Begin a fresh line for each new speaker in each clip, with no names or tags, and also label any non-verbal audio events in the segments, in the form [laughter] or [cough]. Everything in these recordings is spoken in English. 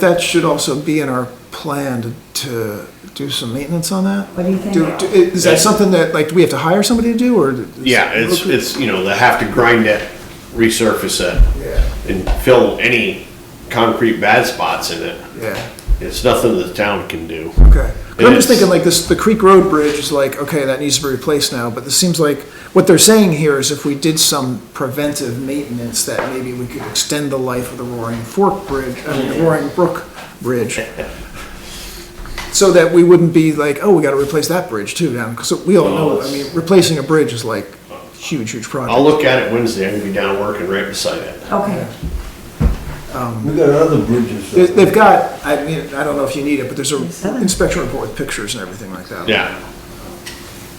That should also be in our plan to- to do some maintenance on that.
What do you think?
Do- do- Is that something that, like, do we have to hire somebody to do, or? is-
Yeah, it's, it's, you know, they have to grind it, resurface it,
Yeah,
and fill any concrete bad spots in it.
yeah,
It's nothing the town can do.
okay. 'Cause I'm just
It's-
thinking, like, this, the Creek Road Bridge is like, okay, that needs to be replaced now, but this seems like, what they're saying here is if we did some preventive maintenance, that maybe we could extend the life of the Roaring Fork Bridge, I mean, the Roaring Brook Bridge. So that we wouldn't be like, oh, we gotta replace that bridge too down, because we all know, I mean, replacing a bridge is like huge, huge project.
I'll look at it Wednesday, I'm gonna be down working right beside it.
Okay,
We got other bridges.
They- They've got, I mean, I don't know if you need it, but there's a
Seven.
inspection report with pictures and everything like that.
Yeah,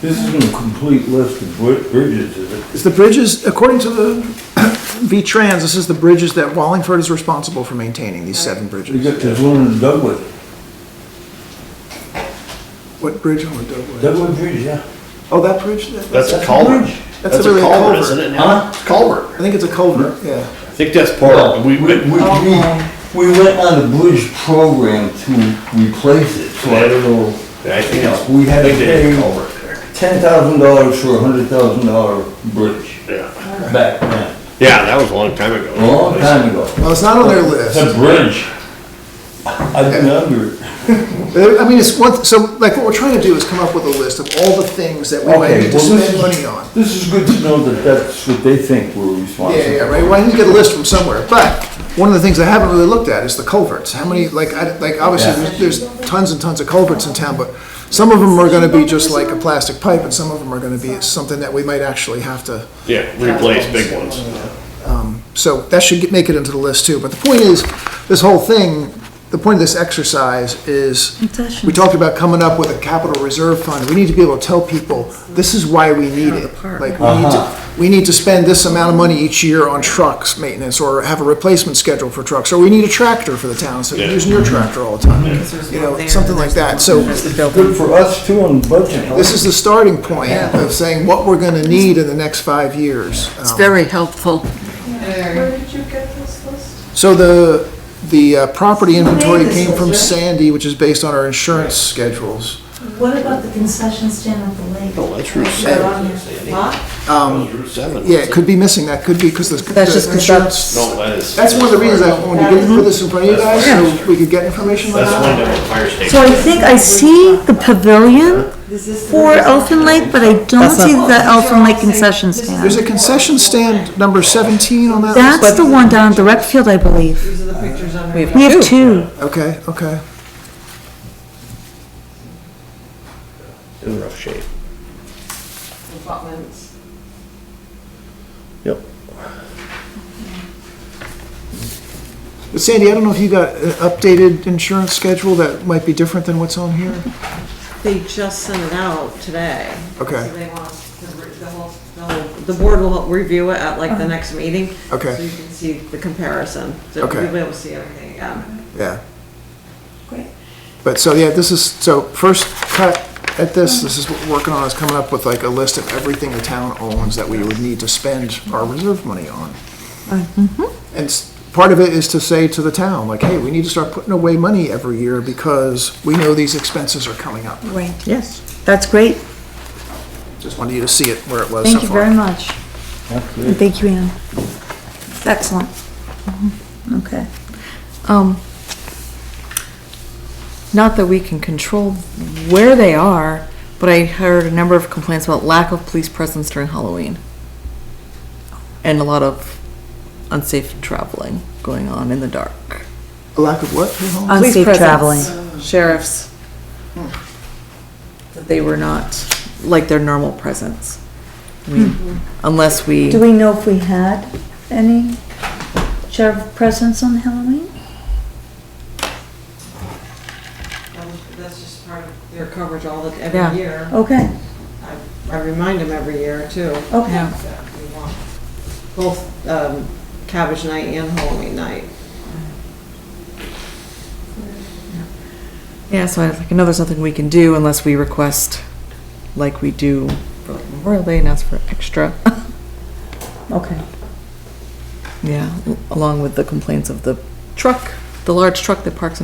This isn't a complete list of bri- bridges, is it?
It's the bridges, according to the [coughs] V-Trans, this is the bridges that Wallingford is responsible for maintaining, these seven
We
bridges.
got this one in Dugwood.
What bridge on the Douglas?
Dugwood Bridge, yeah.
Oh, that bridge? That-
that's a
a
culvert.
bridge.
That's
That's a
really a
culvert,
culvert.
isn't it?
Huh?
It's a Culvert.
I think it's a culvert, yeah.
I think that's part of, it. we,
We,
we,
Okay.
we, we went on a bridge program to replace it, so I don't know.
I think it's,
We had
I
to
think they did a
pay
culvert there.
ten thousand dollars for a hundred thousand dollar bridge
Yeah,
back then,
yeah, that was a long time
a
ago.
long time ago.
Well, it's not on their list.
That bridge. I remember. it.
Uh, I mean, it's one, so like what we're trying to do is come up with a list of all the things that we might
Okay,
need to
well, this
spend
is-
money on.
This is good to know that that's what they think we're responsible.
Yeah, yeah, right, well, I need to get a list from somewhere, but one of the things I haven't really looked at is the culverts, how many, like, I, like, obviously,
Yeah.
there's, there's tons and tons of culverts in town, but some of them are gonna be just like a plastic pipe, and some of them are gonna be something that we might actually have to, Um,
Yeah, replace big ones.
so that should get, make it into the list too, but the point is, this whole thing, the point of this exercise is, we talked about coming up with a capital reserve fund, we need to be able to tell people, this is why we need it. Like, we need
Uh-huh.
to, we need to spend this amount of money each year on trucks maintenance, or have a replacement schedule for trucks, or we need a tractor for the town, so you're
Yeah.
using your tractor all the time. You know, something like that, so
Good for us too on budget. huh?
this is the starting point of saying what we're gonna need in the next five years.
It's
Um,
very helpful.
Where did you get this list?
So the, the uh, property inventory
Latest
came from
ones, right?
Sandy, which is based on our insurance schedules.
What about the concession stand at the lake?
Oh, that's Route
Is that
seven.
on here? What?
Route seven.
Yeah, it could be missing, that could be because the.
That's just
the
'cause
insurance-
that's-
No, that is.
That's one of the reasons I wanted to get put this in front of you guys, so we could get information on
That's
that.
one down at the fire station.
So I think I see the pavilion
is this the?
for Elfin Lake, but I don't see the Elfin Lake concession
There's
stand.
a concession stand number 17 on that list?
That's the one down at the rec field, I believe.
These are the pictures on there.
We have two.
Okay, okay.
In rough shape.
Abutments.
Yep.
But Sandy, I don't know if you got an updated insurance schedule that might be different than what's on here?
They just sent it out today.
Okay.
So they want, the the whole, the whole, the board will review it at
Uh-huh.
like the next meeting.
Okay.
So you can see the comparison. So
Okay.
You'll be able to see everything again.
Yeah.
Great.
But so, yeah, this is, so first cut at this, this is what we're working on, is coming up with like a list of everything the town owns that we would need to spend our reserve money on.
Mm-hmm.
And s- part of it is to say to the town, like, hey, we need to start putting away money every year because we know these expenses are coming up.
Right. Yes, that's great.
Just wanted you to see it where it was Oh, so
Thank you very
far.
much. And thank you, Anne. Excellent. Mhm. Okay. Um, Not that we can control where they are, but I heard a number of complaints about lack of police presence during Halloween. And a lot of unsafe traveling going on in the dark.
A lack of what? Ms. Holmes?
Police
Unsafe
presence,
traveling.
Sheriffs. That They were not like their normal presence. I mean,
Mm-hmm.
Unless we.
Do we know if we had any sheriff presence on Halloween?
That was- That's just part of their coverage all the,
Yeah. Oh.
every year.
Okay,
I I remind them every year too.
okay.
that we want Both, um, Cabbage Night and Halloween Night.
Yeah, so I, was like, I know there's nothing we can do unless we request, like we do for like Memorial Day, and ask for extra.
Okay.
yeah, along with the complaints of the truck
the large truck that parks in